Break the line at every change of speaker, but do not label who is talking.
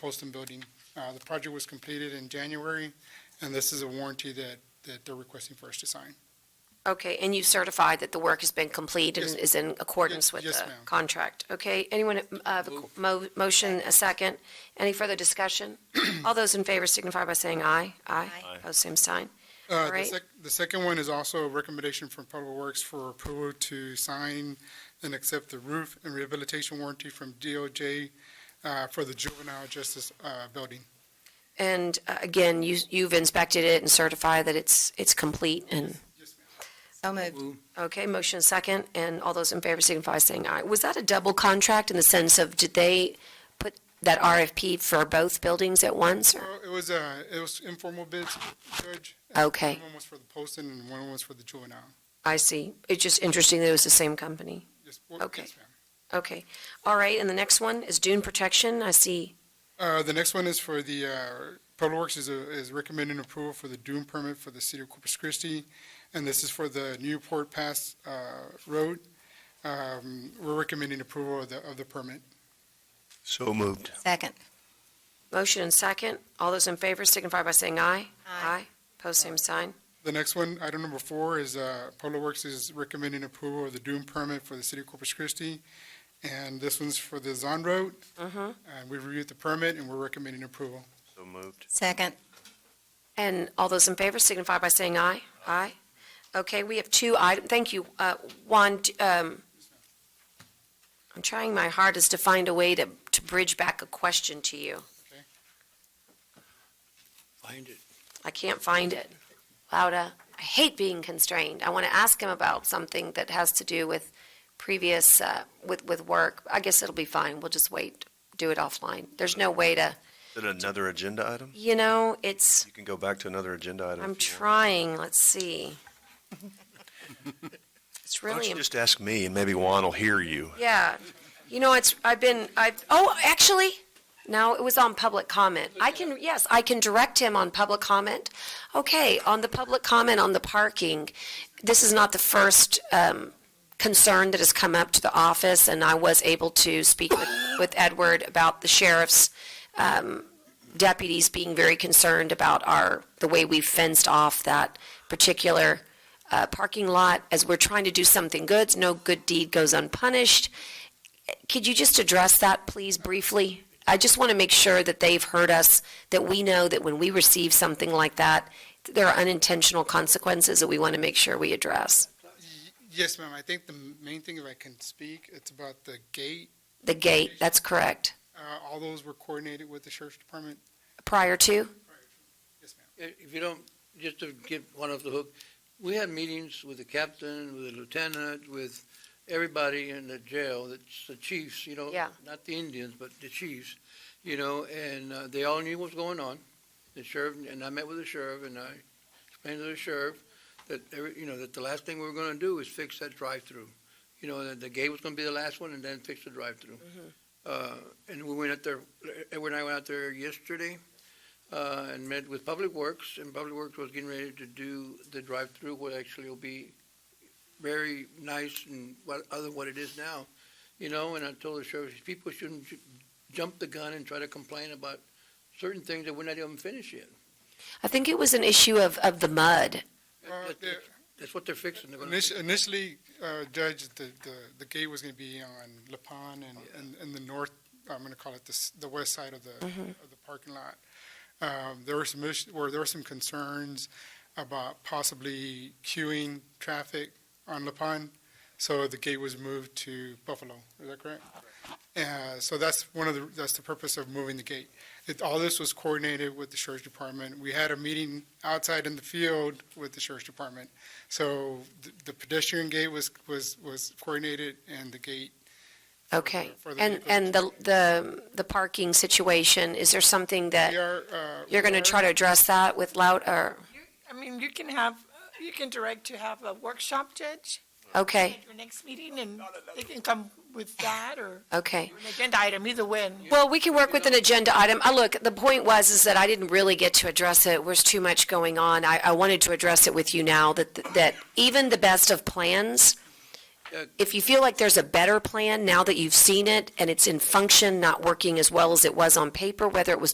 Poston Building. Uh, The project was completed in January, and this is a warranty that, that they're requesting for us to sign.
Okay, and you certified that the work has been completed
Yes.
and is in accordance
Yes-
with
yes,
the
ma'am.
contract? Okay, anyone uh, have a mo- motion, a second? Any further discussion? All those in favor signify by saying aye. Aye. Pose same sign.
Uh, The
Alright.
sec- the second one is also a recommendation from Public Works for approval to sign and accept the roof and rehabilitation warranty from DOJ uh, for the juvenile justice uh, building.
And uh, again, you- you've inspected it and certified that it's, it's complete and,
Yes, ma'am.
So moved.
okay, motion a second, and all those in favor signify by saying aye. Was that a double contract in the sense of, did they put that RFP for both buildings at once? or-
Well, It was, uh, it was informal bids, Judge.
Okay.
One was for the Poston and one was for the juvenile.
I see. It's just interesting that it was the same company.
Yes, well,
Okay.
yes, ma'am.
Okay, all right, and the next one is dune protection, I see,
Uh, the next one is for the, uh, Public Works is, uh, is recommending approval for the dune permit for the city of Corpus Christi. And this is for the Newport Pass, uh, road. Um, we're recommending approval of the, of the permit.
So moved.
Second.
motion and second, all those in favor signify by saying aye.
Aye.
Post same sign,
The next one, item number four, is, uh, Public Works is recommending approval of the dune permit for the city of Corpus Christi. And this one's for the Zon Road,
mhm.
and we reviewed the permit and we're recommending approval.
So moved.
Second.
And all those in favor signify by saying aye. Aye. Okay, we have two item, thank you, uh, Juan, d- um, I'm trying my hardest to find a way to, to bridge back a question to you.
Find it.
I can't find it. Lauda, I hate being constrained. I want to ask him about something that has to do with previous, uh, with, with work. I guess it'll be fine. We'll just wait, do it offline. There's no way to,
Is it another agenda item?
you know, it's,
You can go back to another agenda item.
I'm
if you want.
trying, let's see. It's
Why don't
really,
you
im-
just ask me and maybe Juan will hear you.
yeah. You know, it's, I've been, I've, oh, actually, no, it was on public comment. I can, yes, I can direct him on public comment. Okay, on the public comment on the parking, this is not the first um, concern that has come up to the office, and I was able to speak with with Edward about the sheriff's um, deputies being very concerned about our, the way we fenced off that particular uh, parking lot, as we're trying to do something good, no good deed goes unpunished. Could you just address that, please, briefly? I just want to make sure that they've heard us, that we know that when we receive something like that, there are unintentional consequences that we want to make sure we address.
Yes, ma'am, I think the main thing, if I can speak, it's about the gate.
The gate, that's correct.
Uh, all those were coordinated with the sheriff's department.
Prior to?
Yes, ma'am.
If if you don't, just to get one off the hook, we had meetings with the captain, with the lieutenant, with everybody in the jail, that's the chiefs, you know?
Yeah.
Not the Indians, but the chiefs, you know, and uh, they all knew what was going on. The sheriff, and I met with the sheriff, and I explained to the sheriff that, every- you know, that the last thing we were gonna do is fix that drive-through. You know, that the gate was gonna be the last one, and then fix the drive-through. Uh, and we went out there, Edward and I went out there yesterday, uh, and met with Public Works, and Public Works was getting ready to do the drive-through, what actually will be very nice and what, other than what it is now, you know, and I told the sheriff, people shouldn't ju- jump the gun and try to complain about certain things that we're not even finished yet.
I think it was an issue of, of the mud.
Uh,
That-
the-
that- That's what they're fixing, they're gonna,
Initi- Initially, uh, Judge, the, the, the gate was gonna be on La Pan and, and, and the north, I'm gonna call it the, s- the west side of the,
Mm-hmm.
of the parking lot. Um, there were some issues, where there were some concerns about possibly queuing traffic on La Pan. So the gate was moved to Buffalo, is that correct? Uh, so that's one of the, that's the purpose of moving the gate. It, all this was coordinated with the sheriff's department. We had a meeting outside in the field with the sheriff's department. So the- the pedestrian gate was, was, was coordinated and the gate. for-
Okay.
for the
And,
vehicles.
and the, the, the parking situation, is there something
We
that
are, uh.
you're going to try to address that with loud, or,
I mean, you can have, you can direct to have a workshop judge
okay,
at your next meeting, and they can come with that or
okay.
an agenda item, either way.
Well, we can work with an agenda item. Uh, look, the point was is that I didn't really get to address it. There's too much going on. I, I wanted to address it with you now that, that even the best of plans
Uh,
If you feel like there's a better plan now that you've seen it and it's in function, not working as well as it was on paper, whether it was